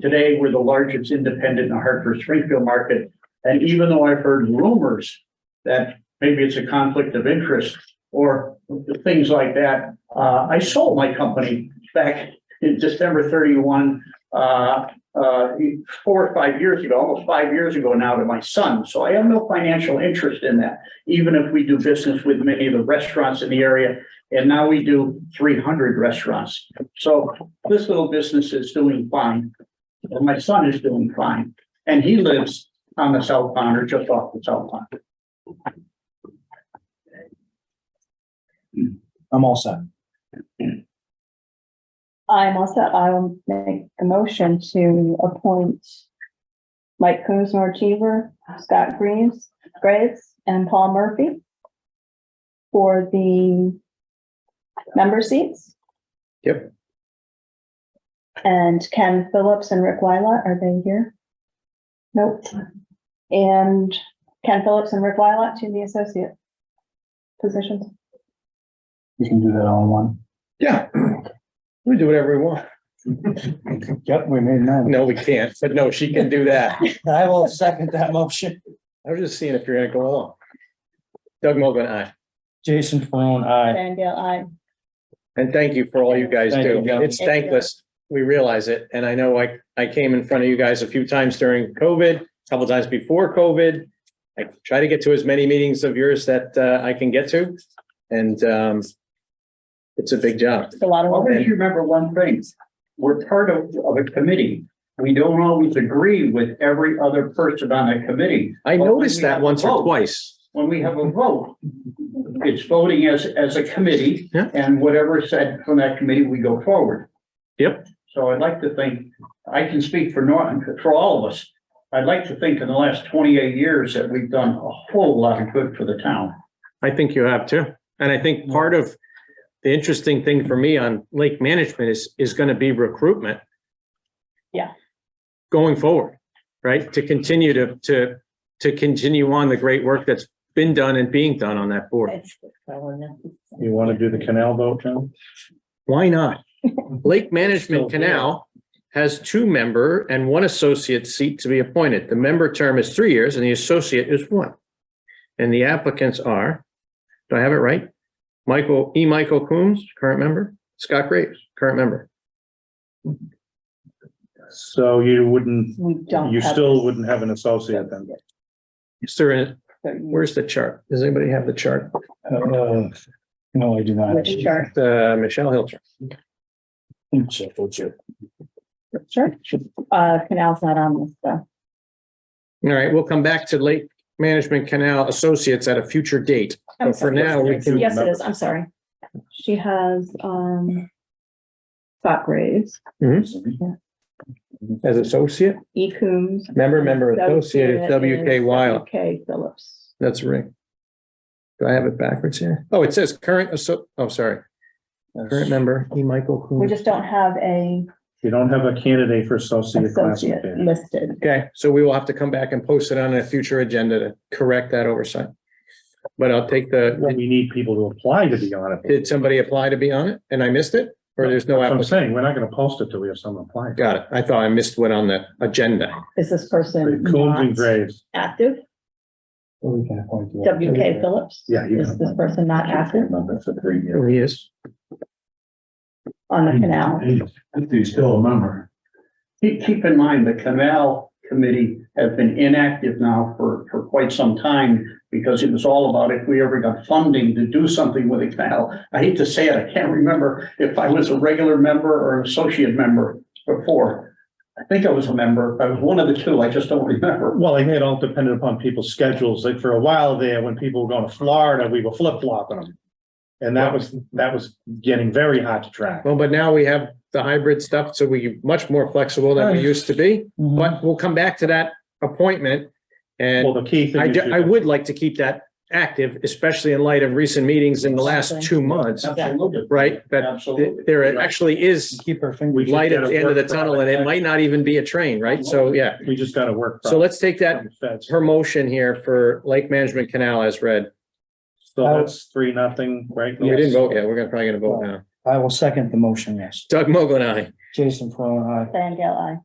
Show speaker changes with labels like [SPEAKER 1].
[SPEAKER 1] Today, we're the largest independent in the Hartford Springfield market. And even though I've heard rumors that maybe it's a conflict of interest or things like that, uh, I sold my company back in December thirty-one, uh, uh, four or five years ago, almost five years ago now to my son. So I have no financial interest in that, even if we do business with many of the restaurants in the area. And now we do three hundred restaurants. So this little business is doing fine. And my son is doing fine. And he lives on the South Pond or just off the South Pond.
[SPEAKER 2] I'm all set.
[SPEAKER 3] I'm also, I will make a motion to appoint Mike Kuzner Cheever, Scott Greaves, Graves, and Paul Murphy for the member seats.
[SPEAKER 2] Yep.
[SPEAKER 3] And Ken Phillips and Rick Wyla, are they here? Nope. And Ken Phillips and Rick Wyla to the associate positions.
[SPEAKER 2] We can do that all in one.
[SPEAKER 4] Yeah, we do whatever we want.
[SPEAKER 2] Yep, we made nine.
[SPEAKER 4] No, we can't, but no, she can do that.
[SPEAKER 2] I will second that motion.
[SPEAKER 4] I was just seeing if you're gonna go along. Doug Mogul, aye.
[SPEAKER 2] Jason Perone, aye.
[SPEAKER 3] Van Gale, aye.
[SPEAKER 4] And thank you for all you guys
[SPEAKER 2] Thank
[SPEAKER 4] do.
[SPEAKER 2] you, Doug.
[SPEAKER 4] It's thankless. We realize it. And I know I, I came in front of you guys a few times during COVID, a couple times before COVID. I try to get to as many meetings of yours that uh, I can get to. And um, it's a big job.
[SPEAKER 3] It's a lot of work.
[SPEAKER 1] Always remember one thing, we're part of, of a committee. We don't always agree with every other person on a committee.
[SPEAKER 4] I noticed that once or
[SPEAKER 1] Well,
[SPEAKER 4] twice.
[SPEAKER 1] When we have a vote, it's voting as, as a committee.
[SPEAKER 4] Yeah.
[SPEAKER 1] And whatever is said from that committee, we go forward.
[SPEAKER 4] Yep.
[SPEAKER 1] So I'd like to think, I can speak for Norton, for all of us. I'd like to think in the last twenty-eight years that we've done a whole lot of good for the town.
[SPEAKER 4] I think you have too. And I think part of the interesting thing for me on lake management is, is going to be recruitment.
[SPEAKER 3] Yeah.
[SPEAKER 4] Going forward, right? To continue to, to, to continue on the great work that's been done and being done on that board.
[SPEAKER 2] You want to do the canal vote, John?
[SPEAKER 4] Why not? Lake Management Canal has two member and one associate seat to be appointed. The member term is three years and the associate is one. And the applicants are, do I have it right? Michael, E. Michael Coombs, current member, Scott Graves, current member.
[SPEAKER 5] So you wouldn't,
[SPEAKER 3] We don't.
[SPEAKER 5] you
[SPEAKER 3] have
[SPEAKER 5] still
[SPEAKER 3] this.
[SPEAKER 5] wouldn't have an associate then?
[SPEAKER 4] Is there, a-
[SPEAKER 3] So you-
[SPEAKER 4] where's the chart? Does anybody have the chart?
[SPEAKER 2] Uh, No, I do not.
[SPEAKER 3] Which chart?
[SPEAKER 4] The Uh, Michelle Hill chart.
[SPEAKER 2] Check, oh, check.
[SPEAKER 3] Sure. Uh, canal's not on this, so.
[SPEAKER 4] All right, we'll come back to Lake Management Canal Associates at a future date.
[SPEAKER 3] I'm
[SPEAKER 4] But for now, we can,
[SPEAKER 3] Yes, it is. I'm sorry. She has, um, Scott Graves,
[SPEAKER 4] as associate,
[SPEAKER 3] E. Coombs.
[SPEAKER 4] member, member, associate, is WK Wild.
[SPEAKER 3] K. Phillips.
[SPEAKER 4] That's right. Do I have it backwards here? Oh, it says current, asso- oh, sorry, current member, E. Michael
[SPEAKER 3] We
[SPEAKER 4] Coombs.
[SPEAKER 3] just don't have a
[SPEAKER 5] You don't have a candidate for associate
[SPEAKER 3] associate
[SPEAKER 5] classification.
[SPEAKER 3] listed.
[SPEAKER 4] Okay, so we will have to come back and post it on a future agenda to correct that oversight. But I'll take
[SPEAKER 5] Well,
[SPEAKER 4] the,
[SPEAKER 5] We need people to apply to be on it.
[SPEAKER 4] did somebody apply to be on it and I missed it? Or there's no
[SPEAKER 5] That's what I'm
[SPEAKER 4] application?
[SPEAKER 5] saying, we're not gonna post it till we have someone apply.
[SPEAKER 4] Got it. I thought I missed one on the agenda.
[SPEAKER 3] Is this person
[SPEAKER 5] Coombs and
[SPEAKER 3] not
[SPEAKER 5] Graves,
[SPEAKER 3] active?
[SPEAKER 2] Well, we can appoint you.
[SPEAKER 3] WK Phillips?
[SPEAKER 5] Yeah, you
[SPEAKER 3] Is
[SPEAKER 5] can-
[SPEAKER 3] this person not active
[SPEAKER 4] Oh, he is.
[SPEAKER 3] on
[SPEAKER 5] Hmm.
[SPEAKER 3] the canal?
[SPEAKER 1] He's still a member. Keep, keep in mind, the canal committee has been inactive now for, for quite some time because it was all about if we ever got funding to do something with the canal. I hate to say it, I can't remember if I was a regular member or an associate member before. I think I was a member. I was one of the two. I just don't remember.
[SPEAKER 5] well, I think it all depended upon people's schedules, like for a while there, when people were going to Florida, we were flip flopping them. And that was, that was getting very hard to track.
[SPEAKER 4] Well, but now we have the hybrid stuff, so we much more flexible than we used to be.
[SPEAKER 2] Mhm.
[SPEAKER 4] But we'll come back to that appointment. And
[SPEAKER 5] Well, the key
[SPEAKER 4] I,
[SPEAKER 5] thing. is
[SPEAKER 4] ju-
[SPEAKER 5] you-
[SPEAKER 4] I would like to keep that active, especially in light of recent meetings in the last two months,
[SPEAKER 1] Absolutely.
[SPEAKER 4] right? That th-
[SPEAKER 1] Absolutely.
[SPEAKER 4] there actually is
[SPEAKER 2] Keep our fingers.
[SPEAKER 5] We just
[SPEAKER 4] light at
[SPEAKER 5] gotta
[SPEAKER 4] the end of the
[SPEAKER 5] work
[SPEAKER 4] tunnel and it might not even be a train, right? So, yeah.
[SPEAKER 5] We just gotta work.
[SPEAKER 4] So let's take that,
[SPEAKER 5] That's-
[SPEAKER 4] her motion here for Lake Management Canal as read.
[SPEAKER 5] So that's three, nothing, right?
[SPEAKER 4] We didn't vote yet. We're gonna, probably gonna vote now.
[SPEAKER 2] I will second the motion, yes.
[SPEAKER 4] Doug Mogul and I.
[SPEAKER 2] Jason Perone, aye.
[SPEAKER 3] Van Gale,